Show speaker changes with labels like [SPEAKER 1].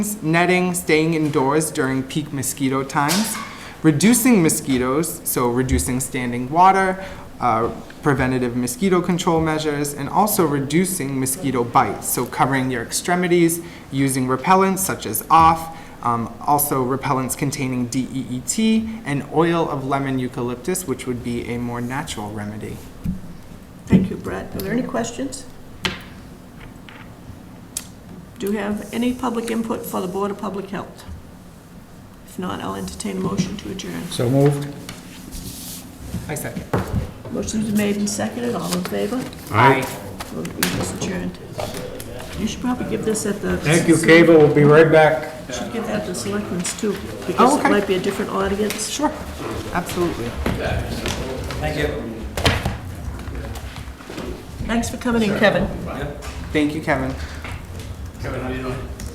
[SPEAKER 1] netting, staying indoors during peak mosquito times, reducing mosquitoes, so reducing standing water, uh, preventative mosquito control measures, and also reducing mosquito bites, so covering your extremities, using repellents such as off, um, also repellents containing DEET, and oil of lemon eucalyptus, which would be a more natural remedy.
[SPEAKER 2] Thank you, Brett. Are there any questions? Do you have any public input for the Board of Public Health? If not, I'll entertain a motion to adjourn.
[SPEAKER 3] So moved.
[SPEAKER 1] I second.
[SPEAKER 2] Motion's been made and seconded, all in favor?
[SPEAKER 1] Aye.
[SPEAKER 2] We'll be adjourned. You should probably give this at the...
[SPEAKER 3] Thank you, Cable. We'll be right back.
[SPEAKER 2] You Should give that to selectmen's too,
[SPEAKER 1] Oh,
[SPEAKER 2] because it
[SPEAKER 1] okay.
[SPEAKER 2] might be a different audience.
[SPEAKER 1] Sure, absolutely.
[SPEAKER 2] Thanks for coming in, Kevin.
[SPEAKER 1] Thank you, Kevin.
[SPEAKER 4] Kevin, how you doing?